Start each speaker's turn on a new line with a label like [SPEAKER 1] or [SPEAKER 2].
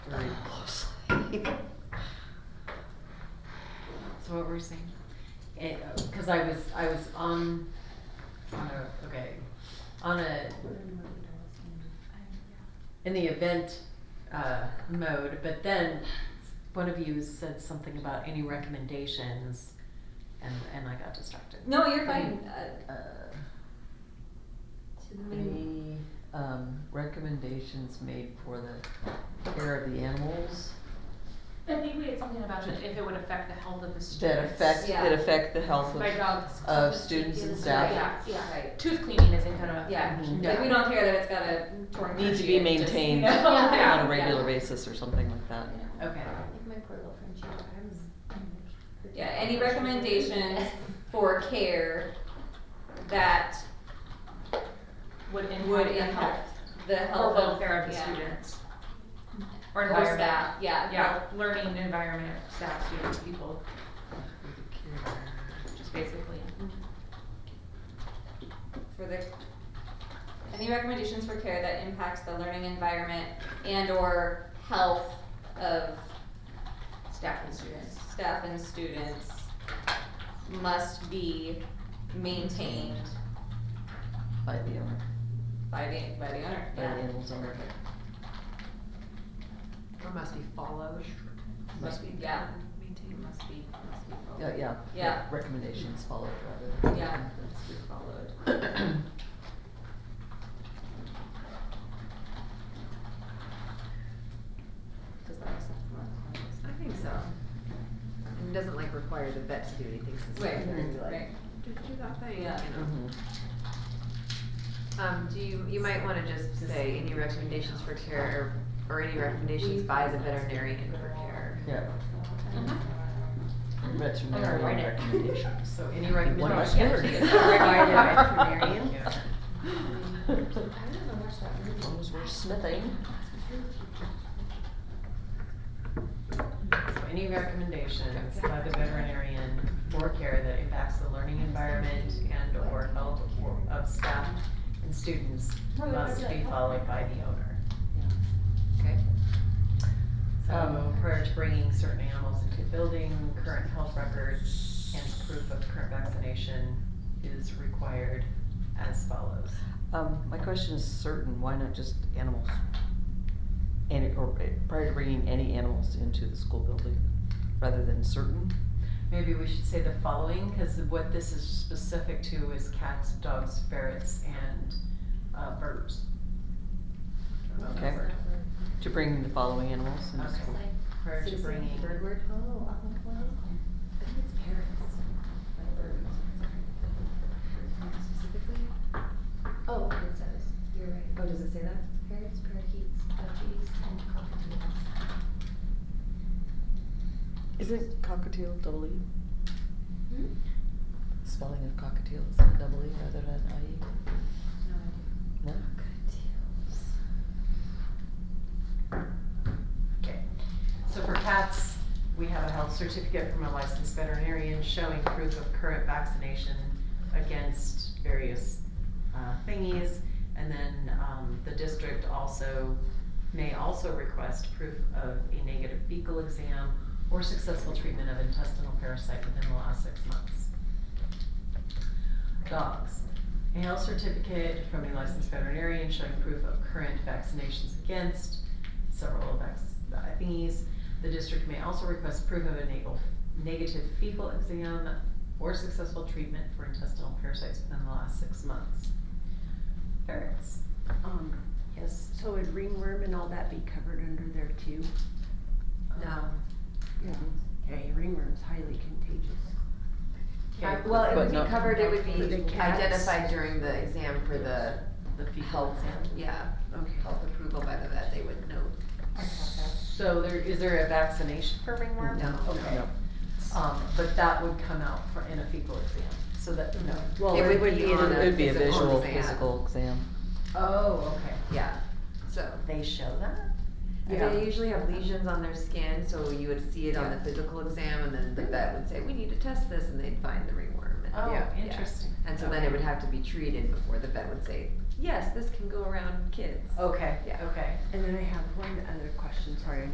[SPEAKER 1] very closely. So what we're saying, it, uh, cause I was, I was on, on a, okay, on a, in the event, uh, mode, but then one of you said something about any recommendations and, and I got distracted.
[SPEAKER 2] No, you're fine. Uh,
[SPEAKER 3] Uh,
[SPEAKER 2] to the main-
[SPEAKER 3] Any, um, recommendations made for the care of the animals
[SPEAKER 4] I think we had something about it, if it would affect the health of the
[SPEAKER 3] that
[SPEAKER 4] students.
[SPEAKER 3] affect, that
[SPEAKER 2] Yeah.
[SPEAKER 3] affect the health
[SPEAKER 4] My
[SPEAKER 3] of,
[SPEAKER 4] dog's
[SPEAKER 3] of students and staff?
[SPEAKER 2] Yeah, yeah, right.
[SPEAKER 4] tooth cleaning isn't gonna
[SPEAKER 2] Yeah,
[SPEAKER 4] affect.
[SPEAKER 1] Mhm.
[SPEAKER 2] like we don't care that it's got a torn.
[SPEAKER 3] Need to be
[SPEAKER 2] coochie, it just, you
[SPEAKER 3] maintained
[SPEAKER 2] know, yeah,
[SPEAKER 3] on a regular
[SPEAKER 2] yeah.
[SPEAKER 3] basis or something like that.
[SPEAKER 1] Okay,
[SPEAKER 5] Like my poor little Frenchie dog, I was-
[SPEAKER 2] Yeah, any recommendations for care that
[SPEAKER 4] Would impact.
[SPEAKER 2] would
[SPEAKER 4] the
[SPEAKER 2] impact the
[SPEAKER 4] Or
[SPEAKER 2] health of,
[SPEAKER 4] welfare of the
[SPEAKER 2] yeah,
[SPEAKER 4] students. Or
[SPEAKER 2] Or
[SPEAKER 4] environment.
[SPEAKER 2] staff, yeah.
[SPEAKER 4] Yeah, learning environment, staff, students, people, just basically.
[SPEAKER 2] for the, any recommendations for care that impacts the learning environment and or health of
[SPEAKER 4] Staff and students.
[SPEAKER 2] staff and students must be maintained
[SPEAKER 3] By the owner,
[SPEAKER 2] by the, by the owner,
[SPEAKER 3] by the
[SPEAKER 2] yeah.
[SPEAKER 3] animal's owner.
[SPEAKER 4] Or must be followed.
[SPEAKER 2] Must be, yeah,
[SPEAKER 4] Maintained must be, must be followed.
[SPEAKER 3] Yeah, yeah.
[SPEAKER 2] Yeah.
[SPEAKER 3] Recommendations followed rather. than
[SPEAKER 2] Yeah.
[SPEAKER 3] things we followed.
[SPEAKER 2] does that make sense?
[SPEAKER 6] I think so. And it doesn't like require the vet to do anything since
[SPEAKER 2] Right,
[SPEAKER 6] they're gonna be
[SPEAKER 2] right.
[SPEAKER 6] like, do, do that thing, you
[SPEAKER 2] Yeah.
[SPEAKER 6] know.
[SPEAKER 3] Mhm.
[SPEAKER 6] Um, do you, you might wanna just say any recommendations for care or, or any recommendations by the veterinarian for care.
[SPEAKER 3] Yeah.
[SPEAKER 2] Mm-hmm.
[SPEAKER 4] I'm gonna write
[SPEAKER 3] Veterinarian
[SPEAKER 4] it.
[SPEAKER 3] recommendations.
[SPEAKER 1] so any recommendations?
[SPEAKER 3] last word.
[SPEAKER 1] Yeah, by the veterinarian?
[SPEAKER 3] As
[SPEAKER 5] I don't know, watch that movie.
[SPEAKER 3] long as we're smithing.
[SPEAKER 1] So any recommendations by the veterinarian for care that impacts the learning environment and or health of staff and students must be followed by the owner.
[SPEAKER 6] Okay.
[SPEAKER 1] So
[SPEAKER 3] Um,
[SPEAKER 1] prior to bringing certain animals into the building, current health records and proof of current vaccination is required as follows.
[SPEAKER 3] Um, my question is certain, why not just animals? And, or eh, prior to bringing any animals into the school building, rather than certain?
[SPEAKER 1] Maybe we should say the following, cause what this is specific to is cats, dogs, ferrets, and, uh, birds. I don't know that
[SPEAKER 3] Okay.
[SPEAKER 1] word.
[SPEAKER 3] To bring the following animals into
[SPEAKER 1] Okay.
[SPEAKER 3] school?
[SPEAKER 1] Prior to
[SPEAKER 5] Citizen
[SPEAKER 1] bringing.
[SPEAKER 5] Bird word, oh, I'm like, what is that? I think it's parrots. Like birds. Specifically? Oh, it says, you're right.
[SPEAKER 6] Oh, does it say that?
[SPEAKER 5] Parrots, parakeets, budgies, and cockatoos.
[SPEAKER 3] Isn't cockatiel double E?
[SPEAKER 5] Hmm?
[SPEAKER 3] Spelling of cockatiel is it double E rather than I
[SPEAKER 5] No idea.
[SPEAKER 3] E? No?
[SPEAKER 5] Cockatoos.
[SPEAKER 1] Okay, so for cats, we have a health certificate from a licensed veterinarian showing proof of current vaccination against various uh, thingies. And then um, the district also, may also request proof of a negative fecal exam or successful treatment of intestinal parasite within the last six months. Dogs. A health certificate from a licensed veterinarian showing proof of current vaccinations against several vac- thingies. The district may also request proof of a natal- negative fecal exam or successful treatment for intestinal parasites within the last six months. Ferrets.
[SPEAKER 7] Um,
[SPEAKER 1] Yes.
[SPEAKER 7] so would ringworm and all that be covered under there too?
[SPEAKER 6] No.
[SPEAKER 7] Yeah. Okay, ringworm's highly contagious.
[SPEAKER 1] Okay,
[SPEAKER 6] Well, it
[SPEAKER 3] But
[SPEAKER 6] would
[SPEAKER 3] not-
[SPEAKER 6] be covered, it would
[SPEAKER 7] For the
[SPEAKER 6] be
[SPEAKER 7] cats.
[SPEAKER 6] identified during the exam for the,
[SPEAKER 1] the fecal
[SPEAKER 6] health,
[SPEAKER 1] exam.
[SPEAKER 6] yeah,
[SPEAKER 7] Okay.
[SPEAKER 6] health approval by the vet, they would know.
[SPEAKER 1] So there, is there a vaccination for ringworm?
[SPEAKER 6] No.
[SPEAKER 1] Okay,
[SPEAKER 3] No.
[SPEAKER 1] um, but that would come out for, in a fecal exam, so that, no.
[SPEAKER 3] Well,
[SPEAKER 6] It would be on
[SPEAKER 3] It
[SPEAKER 6] a
[SPEAKER 3] would be a
[SPEAKER 6] physical
[SPEAKER 3] visual,
[SPEAKER 6] exam.
[SPEAKER 3] physical exam.
[SPEAKER 1] Oh, okay.
[SPEAKER 6] Yeah, so.
[SPEAKER 1] They show that?
[SPEAKER 6] They usually have lesions on their skin, so you would see it on the physical exam, and then the vet would say, "We need to test this," and they'd find the ringworm. And,
[SPEAKER 1] Oh,
[SPEAKER 6] yeah.
[SPEAKER 1] interesting.
[SPEAKER 6] And so then it would have to be treated before the vet would say, "Yes, this can go around kids."
[SPEAKER 1] Okay,
[SPEAKER 6] Yeah.
[SPEAKER 1] okay.
[SPEAKER 7] And then I have one other question, sorry, I